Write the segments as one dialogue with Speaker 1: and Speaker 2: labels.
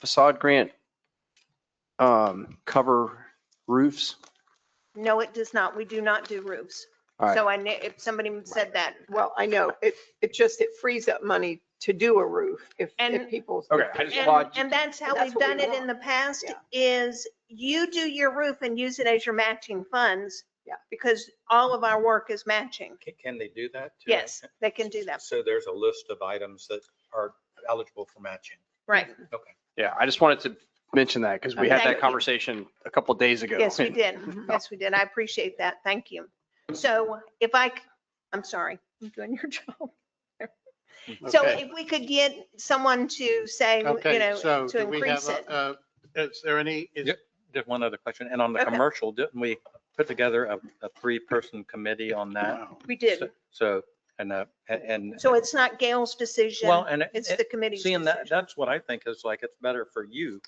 Speaker 1: facade grant um, cover roofs?
Speaker 2: No, it does not. We do not do roofs.
Speaker 1: All right.
Speaker 2: So I, kn- if somebody said that,
Speaker 3: Well, I know, it, it just, it frees up money to do a roof if,
Speaker 2: And-
Speaker 3: if people.
Speaker 4: Okay, I just-
Speaker 2: and,
Speaker 1: Lodge-
Speaker 2: and that's how
Speaker 3: That's
Speaker 2: we've
Speaker 3: what we
Speaker 2: done it in
Speaker 3: want.
Speaker 2: the past,
Speaker 3: Yeah.
Speaker 2: is you do your roof and use it as your matching funds.
Speaker 3: Yeah.
Speaker 2: Because all of our work is matching.
Speaker 4: Ca- Can they do that? too?
Speaker 2: Yes, they can do that.
Speaker 4: So there's a list of items that are eligible for matching.
Speaker 2: Right.
Speaker 1: Yeah, I just wanted to mention that because we had
Speaker 2: Thank
Speaker 1: that
Speaker 2: you.
Speaker 1: conversation a couple days ago.
Speaker 2: Yes, we
Speaker 1: and-
Speaker 2: did.
Speaker 3: Mm-hmm.
Speaker 2: Yes, we did. I appreciate that. Thank you. So if I, c- I'm sorry, I'm doing your job. So
Speaker 5: Okay.
Speaker 2: if we could get someone to say, you
Speaker 5: Okay,
Speaker 2: know,
Speaker 5: so
Speaker 2: to
Speaker 5: do we have,
Speaker 2: increase it.
Speaker 5: a- uh, is there any, is-
Speaker 4: Yep. Just one other question. And on the
Speaker 2: Okay.
Speaker 4: commercial, didn't we put together a, a three-person committee on that?
Speaker 2: We did.
Speaker 4: So- So, and, uh, and- and,
Speaker 2: So it's not Gail's decision.
Speaker 4: well, and it-
Speaker 2: It's the
Speaker 4: it-
Speaker 2: committee's
Speaker 4: Eh, seeing that,
Speaker 2: decision.
Speaker 4: that's what I think is like, it's better for you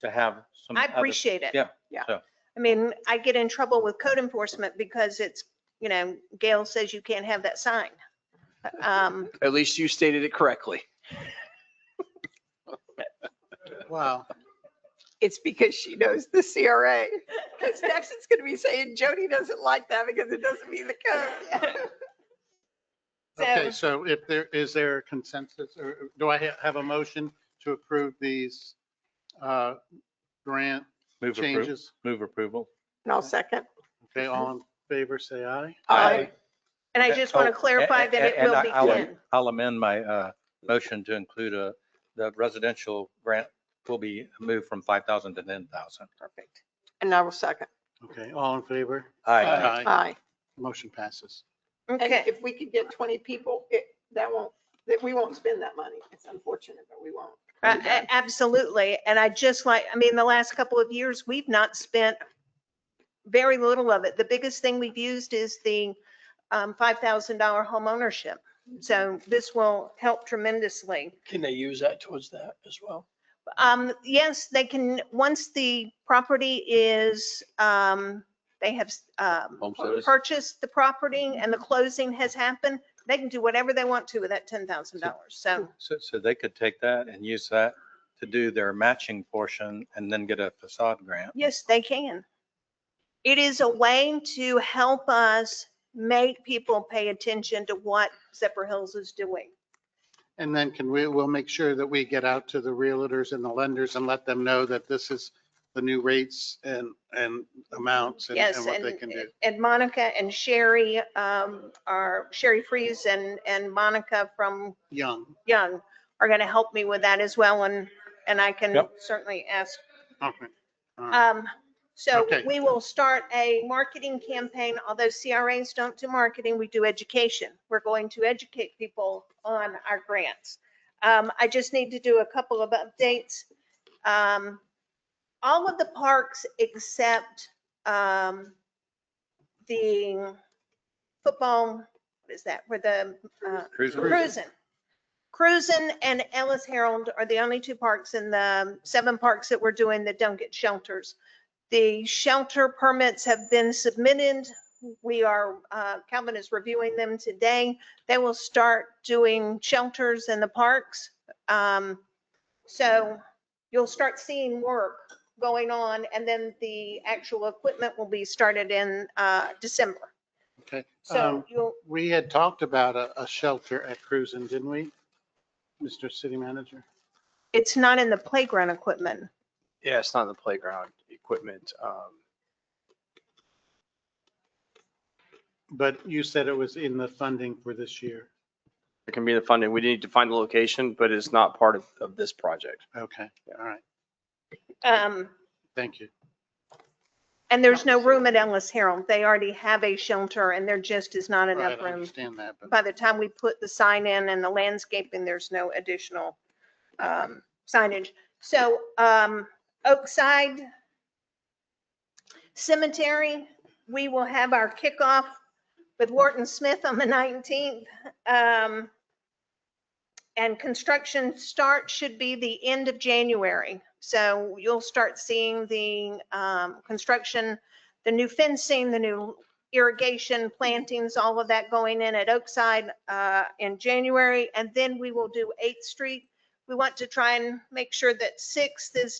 Speaker 4: to have some.
Speaker 2: I
Speaker 4: other-
Speaker 2: appreciate it.
Speaker 4: Yeah,
Speaker 3: Yeah.
Speaker 4: so.
Speaker 2: I mean, I get in trouble with code enforcement because it's, you know, Gail says you can't have that sign. Um,
Speaker 1: At least you stated it correctly.
Speaker 5: wow,
Speaker 3: It's because she knows the CRA. Because next it's going to be saying Jody doesn't like that because it doesn't mean the code.
Speaker 5: okay, so if there, is there a consensus, or do I ha- have a motion to approve these uh, grant
Speaker 4: Move approval,
Speaker 5: changes?
Speaker 4: move approval.
Speaker 3: And I'll second.
Speaker 5: Okay, all in favor, say aye.
Speaker 3: Aye.
Speaker 2: um, And I just want
Speaker 4: Oh,
Speaker 2: to
Speaker 4: a-
Speaker 2: clarify
Speaker 4: a-
Speaker 2: that it
Speaker 4: and
Speaker 2: will
Speaker 4: I-
Speaker 2: be
Speaker 4: I'll-
Speaker 2: Ken.
Speaker 4: I'll amend my uh, motion to include a, the residential grant will be moved from 5,000 to 10,000.
Speaker 3: Perfect. And I will second.
Speaker 5: Okay, all in favor? Uh,
Speaker 4: Aye.
Speaker 3: Aye.
Speaker 5: Motion passes.
Speaker 3: And
Speaker 2: Okay,
Speaker 3: if we could get 20 people, it, that won't, that we won't spend that money. It's unfortunate, but we won't.
Speaker 2: Uh, a- absolutely. And I just like, I mean, the last couple of years, we've not spent very little of it. The biggest thing we've used is the um, $5,000 home ownership. So this will help tremendously.
Speaker 6: Can they use that towards that as well?
Speaker 2: Um, yes, they can, once the property is, um, they have, um, purchased the property and the closing has happened, they can do whatever they want to with that ten thousand dollars. So,
Speaker 4: So, so they could take that and use that to do their matching portion and then get a facade grant.
Speaker 2: yes, they can. It is a way to help us make people pay attention to what Zephyr Hills is doing.
Speaker 5: And then can we, we'll make sure that we get out to the realtors and the lenders and let them know that this is the new rates and, and amounts and
Speaker 2: Yes,
Speaker 5: and what
Speaker 2: and,
Speaker 5: they can do.
Speaker 2: and Monica and Sherry, um, are, Sherry Freeze and, and Monica from
Speaker 5: Young,
Speaker 2: Young are going to help me with that as well, and, and I can
Speaker 4: Yep.
Speaker 2: certainly ask.
Speaker 5: okay. All right.
Speaker 2: Um, So
Speaker 5: Okay.
Speaker 2: we will start a marketing campaign, although CRAs don't do marketing, we do education. We're going to educate people on our grants. Um, I just need to do a couple of updates. Um, All of the parks except um, the football, what is that, where the uh,
Speaker 4: Cruise
Speaker 5: Cruiser.
Speaker 2: Cruisin. Cruisin and Ellis Herald are the only two parks in the um, seven parks that we're doing that don't get shelters. The shelter permits have been submitted. We are, uh, Calvin is reviewing them today. They will start doing shelters in the parks. Um, So you'll start seeing work going on and then the actual equipment will be started in uh, December.
Speaker 5: Okay.
Speaker 2: So
Speaker 5: Um,
Speaker 2: you'll,
Speaker 5: We had talked about a, a shelter at Cruzen, didn't we? Mr. City Manager?
Speaker 2: it's not in the playground equipment.
Speaker 1: Yeah, it's not in the playground equipment. um,
Speaker 5: But you said it was in the funding for this year.
Speaker 1: It can be the funding. We need to find the location, but it's not part of, of this project.
Speaker 5: Okay, all right,
Speaker 2: Um,
Speaker 5: thank you.
Speaker 2: And there's no room at Ellis Herald. They already have a shelter and there just is not
Speaker 5: Right,
Speaker 2: enough
Speaker 5: I
Speaker 2: room.
Speaker 5: understand that, but
Speaker 2: By the time we put the sign in and the landscaping, there's no additional um, signage. So um, Oakside Cemetery, we will have our kickoff with Wharton Smith on the 19th. Um, And construction start should be the end of January. So you'll start seeing the um, construction, the new fencing, the new irrigation, plantings, all of that going in at Oakside uh, in January. And then we will do 8th Street. We want to try and make sure that sixth is